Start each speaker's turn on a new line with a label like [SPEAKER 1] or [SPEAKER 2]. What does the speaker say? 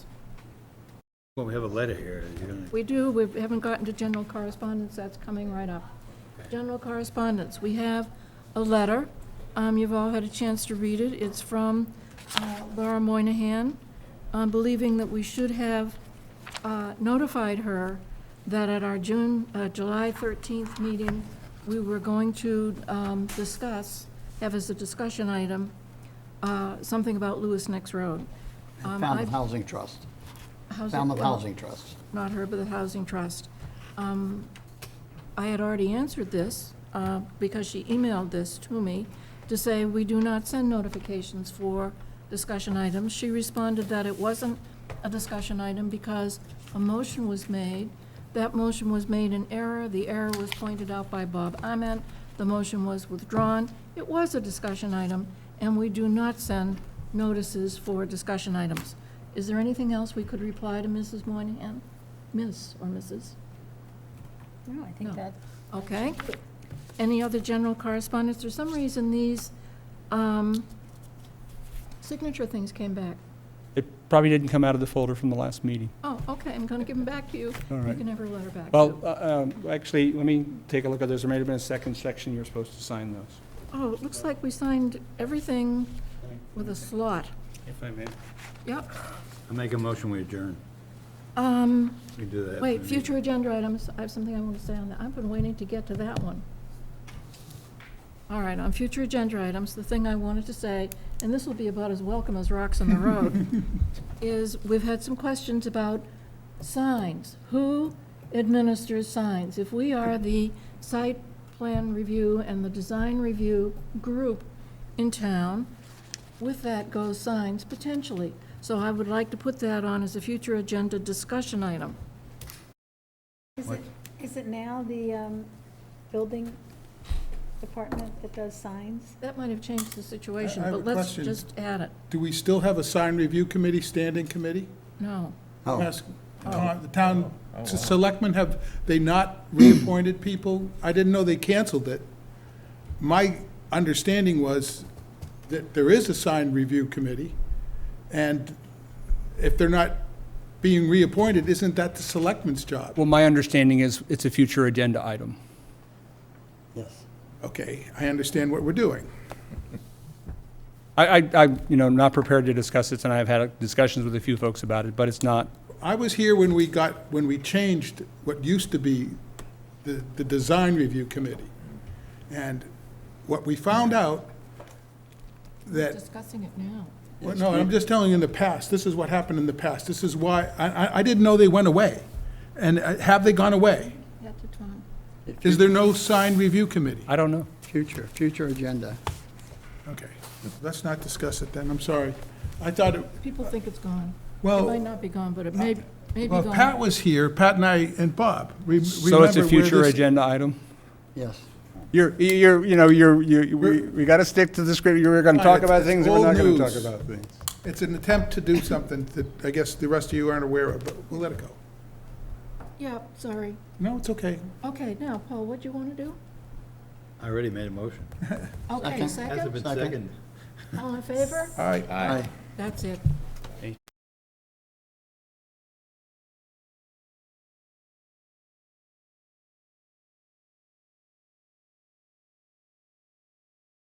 [SPEAKER 1] Well, we have a letter here. You're gonna-
[SPEAKER 2] We do, we haven't gotten to general correspondence, that's coming right up. General correspondence, we have a letter, um, you've all had a chance to read it, it's from, uh, Laura Moynihan, um, believing that we should have, uh, notified her that at our June, uh, July thirteenth meeting, we were going to, um, discuss, have as a discussion item, uh, something about Lewis Next Road. Um,
[SPEAKER 3] Falmouth
[SPEAKER 2] I've-
[SPEAKER 3] Housing Trust,
[SPEAKER 2] how's it-
[SPEAKER 3] Falmouth Housing Trust.
[SPEAKER 2] not her, but the Housing Trust. Um, I had already answered this, uh, because she emailed this to me, to say we do not send notifications for discussion items. She responded that it wasn't a discussion item because a motion was made. That motion was made in error, the error was pointed out by Bob Ament, the motion was withdrawn. It was a discussion item, and we do not send notices for discussion items. Is there anything else we could reply to Mrs. Moynihan? Miss or Mrs.?
[SPEAKER 4] No, I
[SPEAKER 2] No.
[SPEAKER 4] think that,
[SPEAKER 2] Okay. Any other general correspondence? For some reason, these um, signature things came back.
[SPEAKER 5] It probably didn't come out of the folder from the last meeting.
[SPEAKER 2] Oh, okay, I'm going to give them back to you.
[SPEAKER 5] All
[SPEAKER 2] You
[SPEAKER 5] right.
[SPEAKER 2] can have her letter back.
[SPEAKER 5] Well, uh, um, actually, let me take a look at this. There may have been a second section you're supposed to sign those.
[SPEAKER 2] Oh, it looks like we signed everything with a slot.
[SPEAKER 5] If I may.
[SPEAKER 2] Yep.
[SPEAKER 1] I make a motion, we adjourn.
[SPEAKER 2] Um,
[SPEAKER 1] We do that.
[SPEAKER 2] Wait, future agenda items, I have something I want to say on that. I've been waiting to get to that one. All right, on future agenda items, the thing I wanted to say, and this will be about as welcome as rocks on the road, is we've had some questions about signs. Who administers signs? If we are the site plan review and the design review group in town, with that goes signs potentially. So I would like to put that on as a future agenda discussion item.
[SPEAKER 4] is it, is it now the um, building department that does signs?
[SPEAKER 2] That might have changed the situation,
[SPEAKER 6] I- I have
[SPEAKER 2] but
[SPEAKER 6] a
[SPEAKER 2] let's
[SPEAKER 6] question.
[SPEAKER 2] just add it.
[SPEAKER 6] Do we still have a sign review committee, standing committee?
[SPEAKER 2] No.
[SPEAKER 3] Oh,
[SPEAKER 6] Ask- uh, The town s- selectmen, have they not reappointed people? I didn't know they canceled it. My understanding was that there is a sign review committee, and if they're not being reappointed, isn't that the selectmen's job?
[SPEAKER 5] Well, my understanding is it's a future agenda item.
[SPEAKER 3] yes.
[SPEAKER 6] Okay, I understand what we're doing.
[SPEAKER 5] I, I, I, you know, not prepared to discuss it, and I've had discussions with a few folks about it, but it's not,
[SPEAKER 6] I was here when we got, when we changed what used to be the, the design review committee. And what we found out that,
[SPEAKER 2] Discussing it now.
[SPEAKER 6] well, no, I'm just telling you in the past, this is what happened in the past. This is why, I, I, I didn't know they went away. And uh, have they gone away?
[SPEAKER 2] Yeah, to Tom.
[SPEAKER 6] Is there no sign review committee?
[SPEAKER 5] I don't know.
[SPEAKER 3] Future, future agenda.
[SPEAKER 6] Okay, let's not discuss it then, I'm sorry. I thought, it-
[SPEAKER 2] People think it's gone. It
[SPEAKER 6] Well- uh,
[SPEAKER 2] might not be gone, but it may, may be
[SPEAKER 6] well, Pat
[SPEAKER 2] gone.
[SPEAKER 6] was here, Pat and I, and Bob. Re-
[SPEAKER 5] So it's
[SPEAKER 6] remember
[SPEAKER 5] a
[SPEAKER 6] where
[SPEAKER 5] future
[SPEAKER 6] this-
[SPEAKER 5] agenda item?
[SPEAKER 3] Yes.
[SPEAKER 5] You're, you're, you know, you're, you, we, we gotta stick to the script. You're gonna talk
[SPEAKER 6] It's-
[SPEAKER 5] about
[SPEAKER 6] it's
[SPEAKER 5] things, and
[SPEAKER 6] old
[SPEAKER 5] we're not gonna
[SPEAKER 6] news.
[SPEAKER 5] talk about things.
[SPEAKER 6] It's an attempt to do something that I guess the rest of you aren't aware of, but we'll let it go.
[SPEAKER 2] Yeah, sorry.
[SPEAKER 6] No, it's okay.
[SPEAKER 2] Okay, now, Paul, what do you want to do?
[SPEAKER 1] I already made a motion.
[SPEAKER 2] Okay,
[SPEAKER 3] Second.
[SPEAKER 1] Hasn't
[SPEAKER 2] second?
[SPEAKER 1] been
[SPEAKER 3] Second.
[SPEAKER 1] seconded.
[SPEAKER 6] Uh,
[SPEAKER 2] All in favor?
[SPEAKER 6] All right.
[SPEAKER 3] Aye.
[SPEAKER 2] That's it.